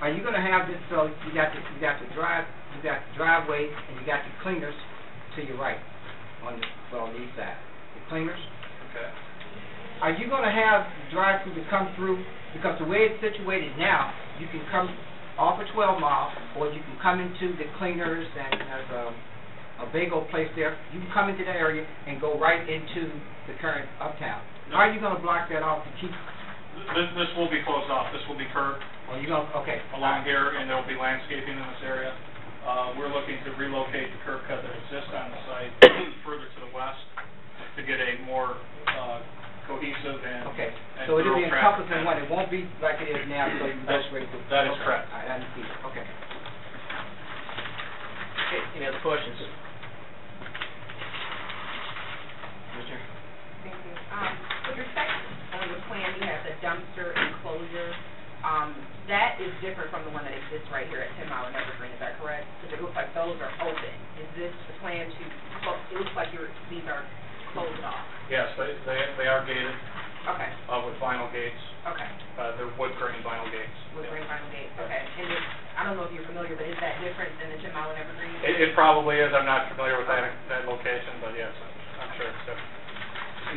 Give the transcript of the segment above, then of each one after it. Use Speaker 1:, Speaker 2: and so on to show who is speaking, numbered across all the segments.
Speaker 1: are you gonna have this, so you got the, you got the drive, you got the driveway and you got the cleaners to your right on the, well, the east side, the cleaners?
Speaker 2: Okay.
Speaker 1: Are you gonna have drive-through to come through, because the way it's situated now, you can come off of twelve mile, or you can come into the cleaners and there's a, a bagel place there, you can come into that area and go right into the current uptown.
Speaker 2: No.
Speaker 1: Are you gonna block that off to keep,
Speaker 2: This, this will be closed off, this will be curb
Speaker 1: or you gonna, okay.
Speaker 2: along here, and there'll be landscaping in this area. Uh, we're looking to relocate the curb cut that exists on the site further to the west to get a more uh, cohesive and
Speaker 1: Okay,
Speaker 2: and
Speaker 1: so it'll be
Speaker 2: thorough traffic
Speaker 1: encompassing one, it won't be like it is now, so you can go
Speaker 2: That's-
Speaker 1: straight to.
Speaker 2: that is
Speaker 1: okay.
Speaker 2: correct.
Speaker 1: All right, I understand, okay.
Speaker 3: Okay, Any other questions? Mr.
Speaker 4: Thank you. Um, With respect on your plan, you have the dumpster enclosure. Um, That is different from the one that exists right here at 10 Mile and Evergreen, is that correct? Because it looks like those are open. Is this the plan to, clo- it looks like your, these are closed off?
Speaker 2: Yes, they, they- they are gated
Speaker 4: Okay,
Speaker 2: uh, with vinyl gates,
Speaker 4: okay.
Speaker 2: Uh, they're wood grain vinyl gates.
Speaker 4: With
Speaker 2: Yeah.
Speaker 4: ring vinyl gate, okay. And it- I don't know if you're familiar, but is that different than the 10 Mile and Evergreen?
Speaker 2: It, it probably is, I'm not familiar with that, that location, but yes, I'm- I'm sure it's different.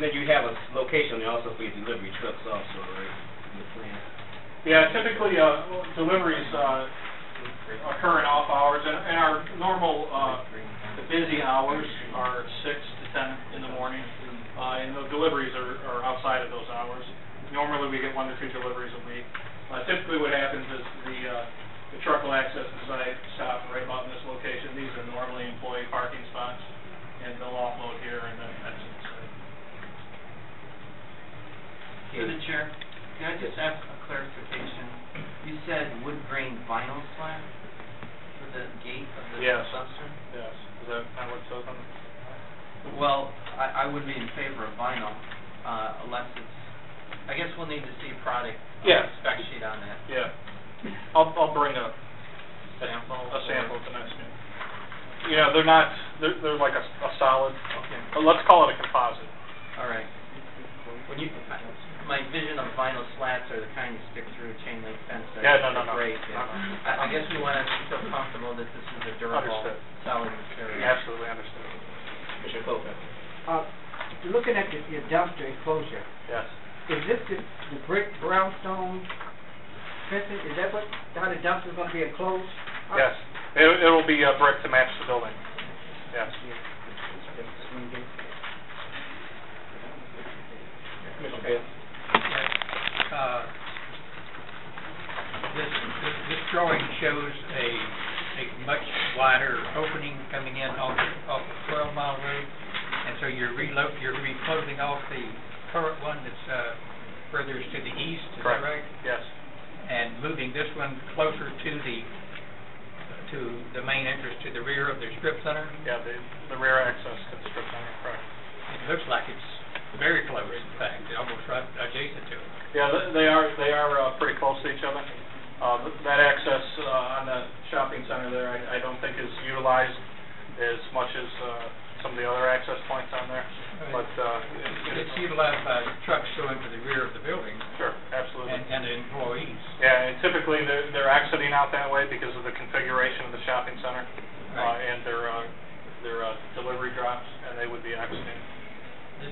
Speaker 3: And then you have a s- location there also for your delivery trucks also, right? Your plan.
Speaker 2: Yeah, typically, uh, deliveries, uh, occur in off hours, and, and our normal, uh, the busy hours are six to ten in the morning, uh, and the deliveries are, are outside of those hours. Normally, we get one to two deliveries a week. Uh, typically, what happens is the, uh, the truck will access the site, stop right about in this location. These are normally employee parking spots, and they'll offload here and then exit the site.
Speaker 5: Through the chair, can I just ask a clarification? You said wood grain vinyl slab for the gate of the
Speaker 2: Yes.
Speaker 5: dumpster?
Speaker 2: Yes, is that kind of what it says on the?
Speaker 5: Well, I, I would be in favor of vinyl, uh, unless it's, I guess we'll need to see product. uh,
Speaker 2: Yes.
Speaker 5: Spec sheet on that
Speaker 2: Yeah. I'll, I'll bring a,
Speaker 5: sample.
Speaker 2: a
Speaker 5: or-
Speaker 2: sample at the next meeting. You know, they're not, they're, they're like a, a solid,
Speaker 5: Okay,
Speaker 2: uh, let's call it a composite.
Speaker 5: all right. When you, I- my vision of vinyl slats are the kind you stick through a chain link fence. that
Speaker 2: Yeah, no, no,
Speaker 5: are
Speaker 2: no. Uh-huh.
Speaker 5: Great, yeah. I, I guess we want to feel comfortable that this is a durable,
Speaker 2: Understood.
Speaker 5: solid material.
Speaker 2: Absolutely understood.
Speaker 3: Mr. Coca?
Speaker 1: Uh, looking at the, your dumpster enclosure,
Speaker 2: Yes.
Speaker 1: is this the, the brick brownstone fencing, is that what, how the dumpster's gonna be enclosed?
Speaker 2: Yes. It, it'll be a brick to match the building. Yes. Mr. Bailey?
Speaker 6: Uh, This, this this drawing shows a, a much wider opening coming in off, off of Twelve Mile Road, and so you're relo, you're reclosing off the current one that's uh, further to the east, is that
Speaker 2: Correct.
Speaker 6: right?
Speaker 2: Yes.
Speaker 6: And moving this one closer to the, to the main entrance to the rear of the strip center?
Speaker 2: Yeah, the, the rear access to the strip center, correct.
Speaker 6: It looks like it's very close, in fact, almost right adjacent to it.
Speaker 2: Yeah, th- they are, they are uh, pretty close to each other. Uh, th- That access uh, on the shopping center there, I I don't think is utilized as much as uh, some of the other access points on there, but... uh,
Speaker 6: But It's utilized by trucks going to the rear of the building
Speaker 2: Sure,
Speaker 6: and,
Speaker 2: absolutely.
Speaker 6: and the employees.
Speaker 2: Yeah, and typically, they're they're exiting out that way because of the configuration of the shopping center uh,
Speaker 6: Right.
Speaker 2: and their uh, their uh, delivery drops, and they would be exiting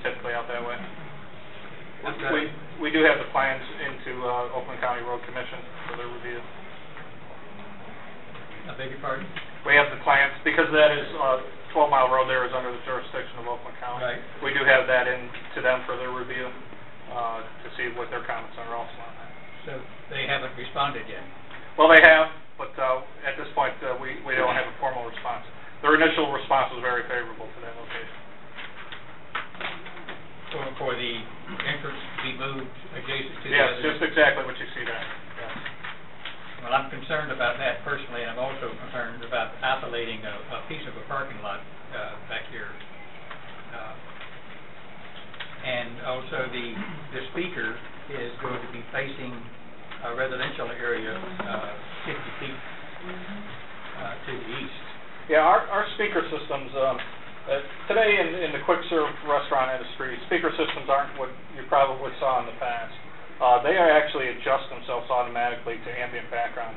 Speaker 2: typically out that way.
Speaker 6: Okay.
Speaker 2: We we do have the plans into uh, Oakland County Road Commission for their review.
Speaker 6: I beg your pardon?
Speaker 2: We have the plans, because that is, uh, 12 Mile Road there is under the jurisdiction of Oakland County.
Speaker 6: Right.
Speaker 2: We do have that in to them for their review, uh, to see what their comments are also on that.
Speaker 6: So they haven't responded yet.
Speaker 2: Well, they have, but uh, at this point, uh, we we don't have a formal response. Their initial response was very favorable to that location.
Speaker 6: For, for the entrance to be moved adjacent to the
Speaker 2: Yes,
Speaker 6: other.
Speaker 2: just exactly what you see there. Yes.
Speaker 6: Well, I'm concerned about that personally, and I'm also concerned about isolating a, a piece of a parking lot, uh, back here. Uh, And also the, the speaker is going to be facing a residential area, uh, fifty feet,
Speaker 4: Mm-hmm.
Speaker 6: uh, to the east.
Speaker 2: Yeah, our, our speaker systems, um, uh, today in, in the quick serve restaurant industry, speaker systems aren't what you probably saw in the past. Uh, they actually adjust themselves automatically to ambient background